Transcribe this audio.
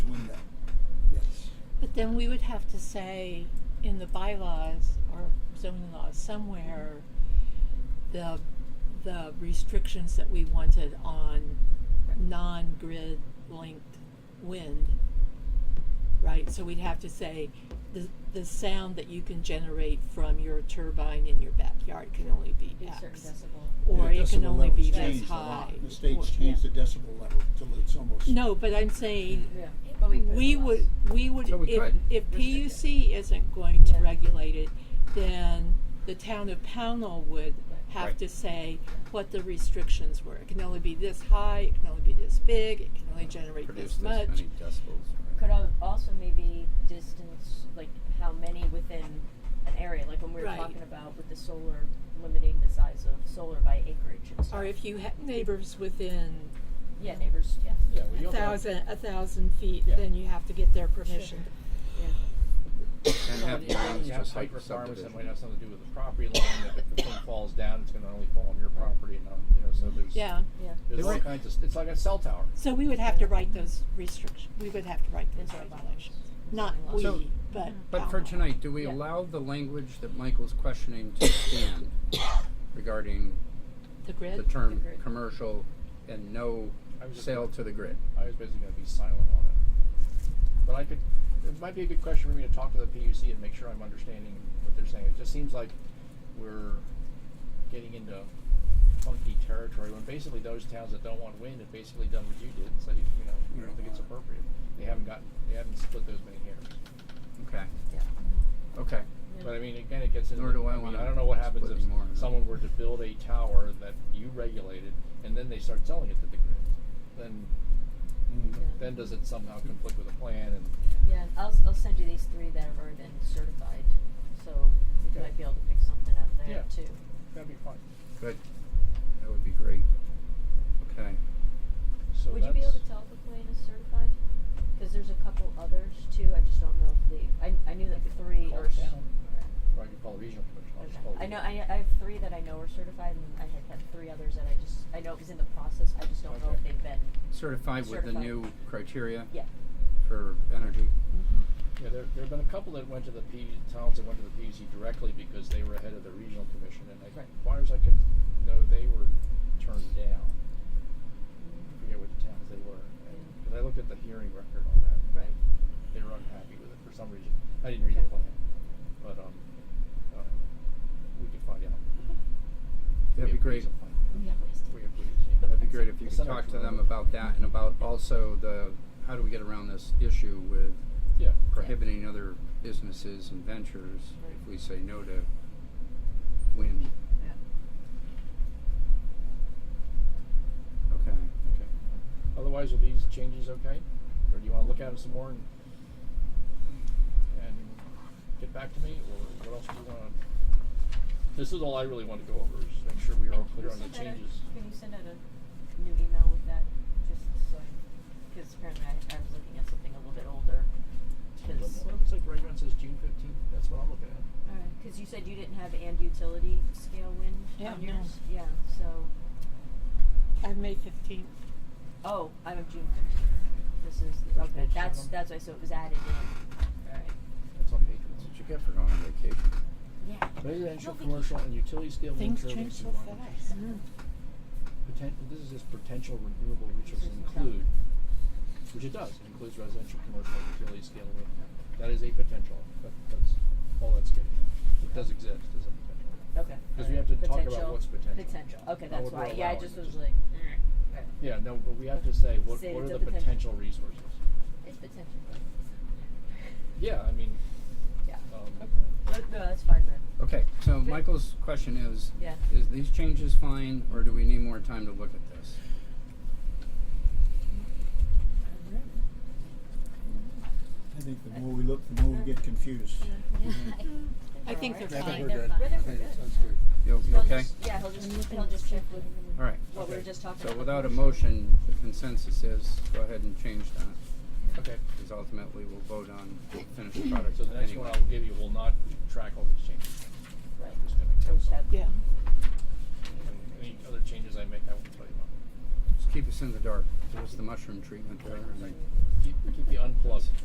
But then we would have to say in the bylaws or zoning laws somewhere, the, the restrictions that we wanted on non-grid linked wind. Right, so we'd have to say, the, the sound that you can generate from your turbine in your backyard can only be Be a certain X. decibel. Or The it can decibel only levels be this changed a lot. high. The state's Or- changed the decibel level till it's almost. No, but I'm saying, Yeah, but we could. we would, we would, So we if, could. if Restrict it. PUC isn't going to Yeah. regulate it, then the town of Pownell would have Right. to say what the restrictions were. It can only be this high, it can only be this big, it can only generate produce this this much. many decibels. Could al- also maybe distance, like how many within an area, like when we were Right. talking about with the solar, limiting the size of solar by acreage and stuff. Or if you have neighbors within Yeah, neighbors, yeah. Yeah, well, a you'll have- thousand, a thousand feet, Yeah. then you have to get their permission. And have You hearings have just like height requirements that might subdivision. have something to do with the property line, that if the thing falls down, it's gonna only fall on your property and not, you know, so there's. Yeah, Yeah, There's all kinds of, it's like a cell tower. so we would have to write those restrictions, we would have to write those Into our bylaws. regulations. Not we, So- but But for Pownell. tonight, do we Yeah. allow the language that Michael's questioning to stand regarding The grid? the term grid. commercial and no I was just- sale to the grid? I was basically gonna be silent on it. But I could, it might be a good question for me to talk to the PUC and make sure I'm understanding what they're saying. It just seems like we're getting into funky territory when basically those towns that don't want wind have basically done what you did and said, you know, we don't think it's appropriate. They haven't gotten, they haven't split those many hairs. Okay, yeah. okay. But I mean, again, it gets into. Nor do I mean, wanna I don't know what happens split if anymore, no. someone were to build a tower that you regulated, and then they start selling it to the grid. Then, Mm. Yeah. then does it somehow conflict with a plan? And Yeah, I'll, s- I'll send you these three that have already been certified, so you Okay. might be able to pick something out of Yeah. there too. that'd be fine. Good. That would be great. Okay. So Would you that's, be able to tell if a plan is certified? Because there's a couple others too, I just don't know if the, I, I knew that the three Call are. it s- down. Or I could call the regional commission. I'll Okay. just call. I know, I, I have three that I know are certified and I had had three others that I just, I know it was in the process, I just don't know if Okay. they've been, Certified with the Certified. new criteria yeah. for energy? Yeah, there, there have been a couple that went to the P, towns that went to the PUC directly because they were ahead of the regional commission, and I, Right. as far as I can know, they were turned down. I forget which towns they were, Yeah. because I looked at the hearing record on that. Right. They were unhappy with it for some reason. I didn't read Okay. the plan, but, um, I don't know. we could find out. That'd We be have ways great. of finding out. We have ways to- We have ways, yeah. That'd be great if you It's could not talk to much them longer. about that and about also the, how do we get around this issue with Yeah. prohibiting other businesses and ventures if Right. we say no to wind. Yeah. Okay. Okay. Otherwise, are these changes okay? Or do you wanna look at them some more and, and get back to me, or what else do you wanna? This is all I really wanna go over, is make sure we are all Can you clear on the send out a- changes. Can you send out a new email with that, just so, because apparently I, I was looking at something a little bit older, because. What if it's like right around says June fifteenth, that's what I'm looking at. Because you said you didn't have and utility scale wind Yeah, on no. yours? Yeah, so, I'm May fifteenth. oh, I'm of June fifteenth. This is, the- Which okay, page that's, seven? that's why, so it was added in. Alright. That's on page That's one. what you get for going on vacation. Yeah. Residential, No, Vicky. commercial, and utility scale wind Things turbines change so and wind- fast. poten- this is just potential renewable resources Resources. include, which it does, it includes residential, commercial, and utility scale wind. That is a potential, that, that's all that's getting at. It does exist as a potential. Okay. 'Cause we have to talk about what's potential. Potential, okay, Not that's what we're why, yeah, I allowing, just it's was just- like, "Eh, eh, Yeah, no, but we have to say, what, Say what it's are a the potential. potential resources? it's potential. Yeah, I mean, Yeah. um, No, no, that's fine then, Okay, so Michael's question is, yeah. is these changes fine or do we need more time to look at this? I think the more we look, the more we get confused. Mm. I think they're Alright. I fine. think we're they're good. fine. I think it sounds good. You you He'll okay? just- Yeah, he'll just, he'll just check with All right. what we were Okay. just talking about. So without a motion, the consensus is, go ahead and change that, okay, because ultimately we'll vote on the finished product so the next anyway. one I will give you will not track all these changes. Right. I'm just gonna So count just some. have- Yeah. Any other changes I make, I will tell you about. Just keep us in the dark, give us the mushroom treatment, right? Keep, keep the unplugged.